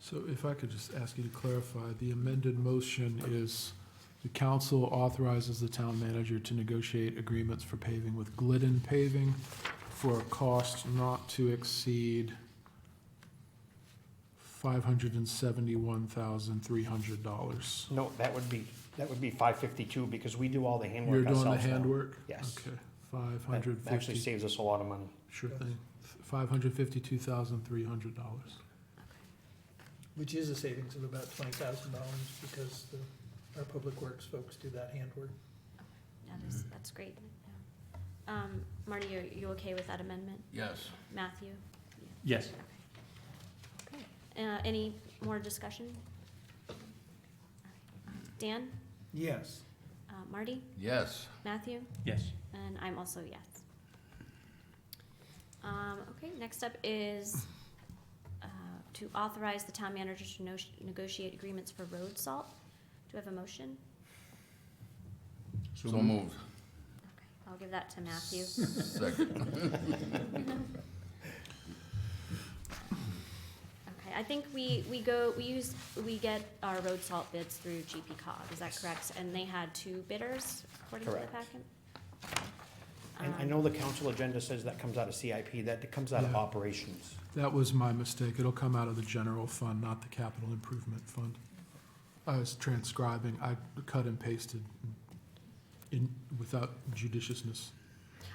So if I could just ask you to clarify, the amended motion is the council authorizes the town manager to negotiate agreements for paving with Glidden Paving for a cost not to exceed five hundred and seventy-one thousand, three hundred dollars. No, that would be, that would be five fifty-two, because we do all the You're handwork doing the ourselves now. handwork? Yes. Okay, five That hundred Actually fifty, saves us a lot of money. sure thing, five hundred fifty-two thousand, three hundred dollars. Which is a savings of about twenty thousand dollars because the, our public works folks do that handwork. That Mm-hmm. is, that's great. Yeah. Um, Marty, are you okay with that amendment? Yes. Matthew? Yes. Okay. Uh, any more discussion? Dan, Yes. uh, Marty, Yes. Matthew, Yes. and I'm also a yes. Um, okay, next up is, uh, to authorize the town manager to no- negotiate agreements for road salt. Do we have a motion? So moved. Okay, I'll give that to Matthew. Second. Okay, I think we, we go, we use, we get our road salt bids through GP Cog, is that correct? And they had two bidders according to the Correct. packet? And I Um, know the council agenda says that comes out of CIP, that comes out of Yeah. operations. That was my mistake. It'll come out of the general fund, not the capital improvement fund. I was transcribing, I cut and pasted in, without judiciousness.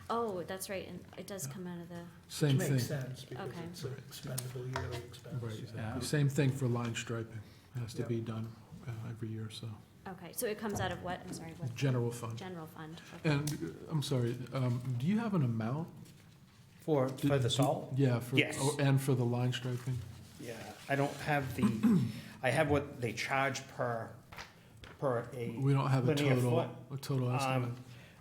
Oh, that's right, and it does come out of the, Same Which makes thing. sense because Okay. it's an expendable yearly expense. Right, Yeah. exactly. Same thing for line striping. Has to Yeah. be done uh, every year, so. okay, so it comes out of what, I'm sorry, what, General fund. general fund? okay. And, uh, I'm sorry, um, do you have an amount? For, Did- for the salt? Yeah, for, Yes. oh, and for the line striping? Yeah, I don't have the, I have what they charge per, per a, We don't have a Linear total, foot. a total estimate. um,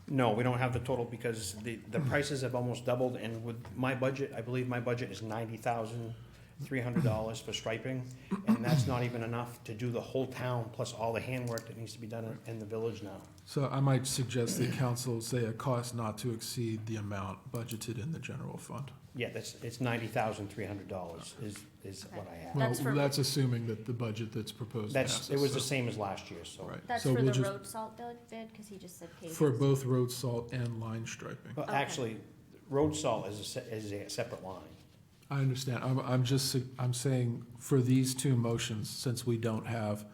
no, we don't have the total because the, the prices have almost doubled and with my budget, I believe my budget is ninety thousand three hundred dollars for striping, and that's not even enough to do the whole town plus all the handwork that needs to be done in- in the village now. So I might suggest the council say a cost not to exceed the amount budgeted in the general fund. Yeah, that's, it's ninety thousand three hundred dollars is, is what I have. Well, That's for- that's assuming that the budget that's proposed That's, passes. it was the so- same as last year, so. Right. That's So for we'll the just- road salt bid, bid, cause he just said paving. For both road salt and line striping. But Okay. actually, road salt is a, se- is a separate line. I understand. I'm, I'm just, su- I'm saying for these two motions, since we don't have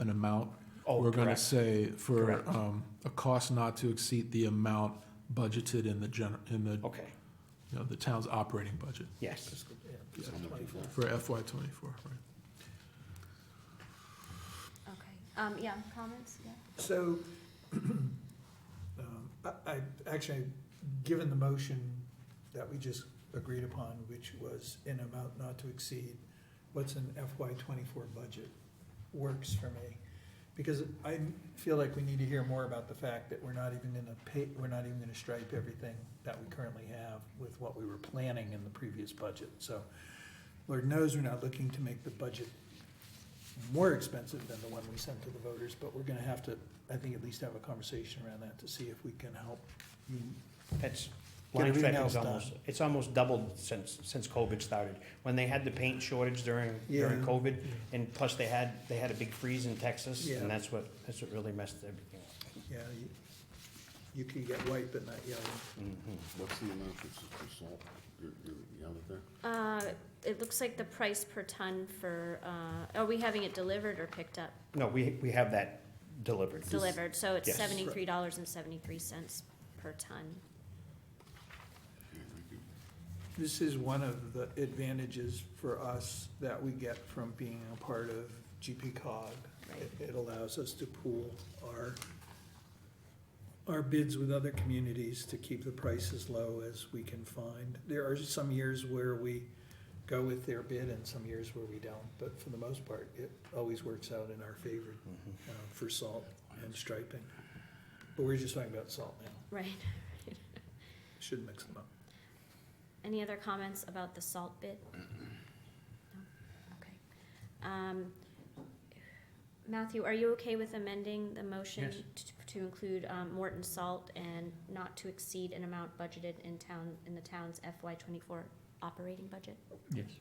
an amount, Oh, we're gonna correct. say for, Correct. um, a cost not to exceed the amount budgeted in the gen, in the, you Okay, know, the town's operating budget yes. Yeah, it's 25. for FY twenty-four, right? Okay, um, yeah, comments, yeah? So, um, I, I, actually, given the motion that we just agreed upon, which was in amount not to exceed, what's an FY twenty-four budget, works for me. Because I feel like we need to hear more about the fact that we're not even gonna pay, we're not even gonna stripe everything that we currently have with what we were planning in the previous budget, so. Lord knows we're not looking to make the budget more expensive than the one we sent to the voters, but we're gonna have to, I think, at least have a conversation around that to see if we can help. you- That's, Get line everything striping's else done. almost, it's almost doubled since, since COVID started. When they had the paint shortage during, during Yeah. COVID, and plus they had, they had a big freeze in Texas, Yeah. and that's what, that's what really messed everything up. Yeah, you, you can get white but not yellow. What's the amount that's for salt, you, you, you have it there? Uh, it looks like the price per ton for, uh, are we having it delivered or picked up? No, we, we have that delivered. Delivered, so it's Yes. seventy-three dollars and seventy-three cents per ton. This is one of the advantages for us that we get from being a part of GP cog. It- It allows us to pool our, our bids with other communities to keep the price as low as we can find. There are some years where we go with their bid and some years where we don't, but for the most part, it always works out in our favor uh, for salt and striping. But we're just talking about salt now, Right. shouldn't mix them up. Any other comments about the salt bid? No? Okay. Um, Matthew, are you okay with amending the motion t- to include um, Morton Salt and not to exceed an amount budgeted in town, in the town's FY twenty-four operating budget? Yes.